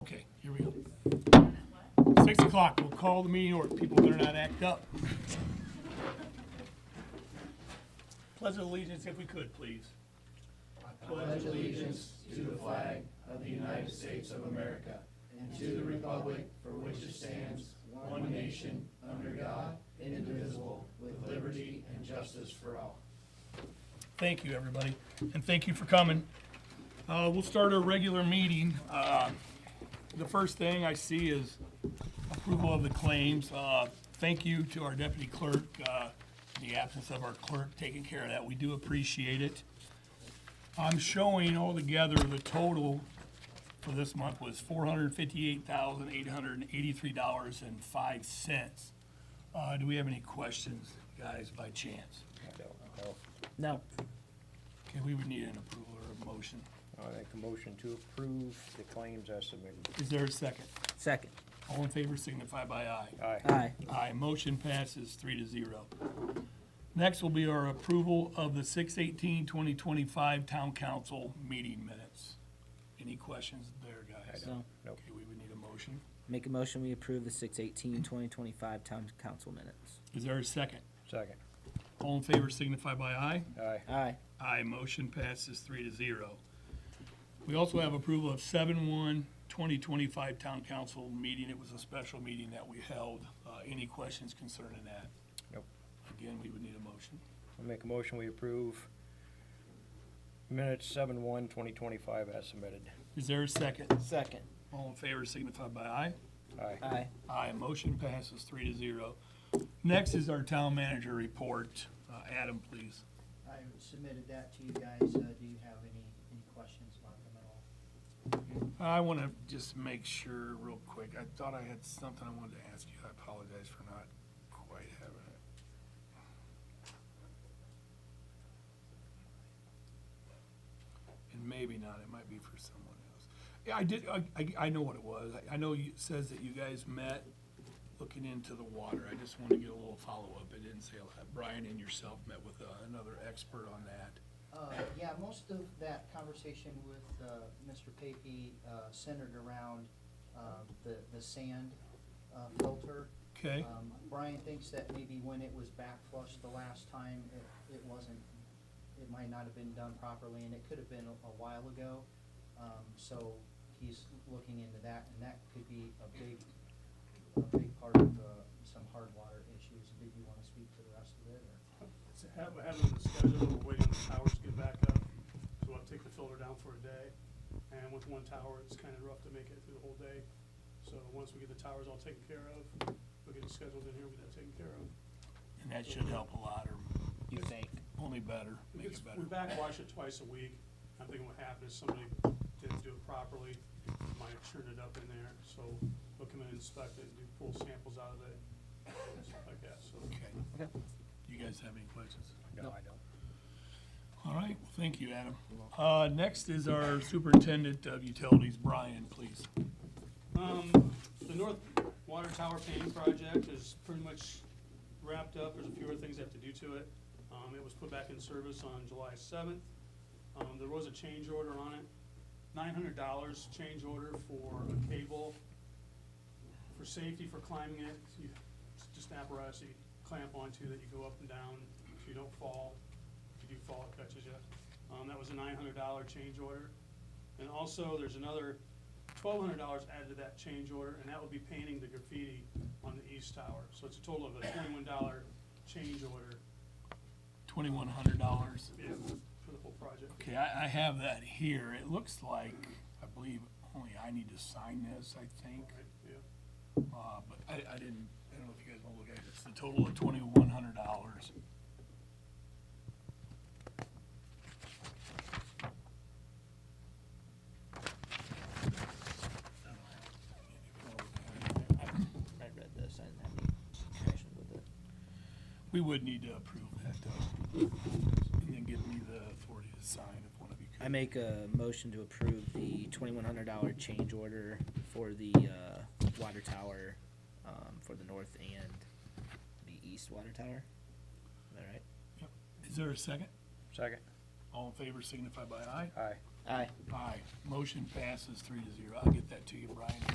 o'clock, we'll call the meeting order. People better not act up. Pledge of allegiance if we could, please. Thank you, everybody, and thank you for coming. Uh, We'll start our regular meeting. Uh, The first thing I see is approval of the claims. Uh, Thank you to our deputy clerk, uh, the absence of our clerk taking care of that. We do appreciate it. I'm showing altogether the total for this month was four hundred fifty-eight thousand, eight hundred and eighty-three dollars and five cents. Uh, Do we have any questions, guys, by chance? No. Okay, we would need an approval or a motion. I make a motion to approve the claims as submitted. Is there a second? Second. All in favor signify by aye. Aye. Aye. Aye, motion passes three to zero. Next will be our approval of the 2025 town council meeting minutes. Any questions there, guys? So, Nope. Okay, we would need a motion. make a motion, we approve the six eighteen, twenty twenty-five town council minutes. Is there a second? Second. All in favor signify by aye. Aye. Aye. Aye, motion passes three to zero. We also have approval of seven one 2025 town council meeting. It was a special meeting that we held. Uh, any questions concerning that? Nope. Again, we would need a motion. I make a motion we approve minutes seven one twenty twenty-five as submitted. Is there a second? Second. All in favor signify by aye. Aye. Aye. Aye, motion passes three to zero. Next is our town manager report. Uh, Adam, please. I submitted that to you guys. Uh, do you have any, any questions about them at all? I want to just make sure real quick. I thought I had something I wanted to ask you. I apologize for not quite having it. And maybe not, it might be for someone else. Yeah, I did, I, I, I know what it was. I, I know you, it says that you guys met looking into the water. I just want to get a little follow-up. It didn't say a lot. Brian and yourself met with uh, another expert on that. Uh, yeah, most of that conversation with, uh, Mr. Pape, uh, centered around, uh, the, the sand, uh, filter. Okay? Um, Brian thinks that maybe when it was back flushed the last time, it, it wasn't, it might not have been done properly, and it could have been a a while ago. Um, so he's looking into that, and that could be a big, a big part of, uh, some hard water issues. Did you wanna speak to the rest of it, or? So have- Having the schedule, we're waiting for towers to get back up, so we'll have to take the filter down for a day. And with one tower, it's kind of rough to make it through the whole day. So once we get the towers all taken care of, we get it scheduled in here, we get that taken care of. And that should help a lot, or You think? only better, make It's- it better. We backwash it twice a week. I'm thinking what happened is somebody didn't do it properly, might have churned it up in there. So they'll come in and inspect it, do pull samples out of it, and stuff like that, so. Okay. You guys have any questions? No, I don't. All right, well, thank you, Adam. Uh, next is our superintendent of utilities, Brian, please. Um, the North Water Tower painting project is pretty much wrapped up, there's a few other things I have to do to it. Um, it was put back in service on July seventh, um, there was a change order on it, nine hundred dollars change order for a cable for safety for climbing it, you, it's just an apparatus that you clamp onto that you go up and down, so you don't fall, if you do fall, it catches you. Um, that was a nine hundred dollar change order, and also, there's another twelve hundred dollars added to that change order, and that would be painting the graffiti on the east tower. So it's a total of a twenty-one dollar change order, Twenty-one hundred dollars. yeah, for the whole project. Okay, I, I have that here. It looks like, I believe, only I need to sign this, I think. Right, yeah. Uh, but I, I didn't, I don't know if you guys want to look at it. It's the total of twenty-one hundred dollars. I read this, I didn't have any questions with it. We would need to approve that though. And then give me the authority to sign if one of you could. I make a motion to approve the twenty-one hundred dollar change order for the, uh, water tower, um, for the north and the east water tower. Is that right? Is there a second? Second. All in favor signify by aye. Aye. Aye. Aye. Motion passes three to zero. I'll get that to you, Brian.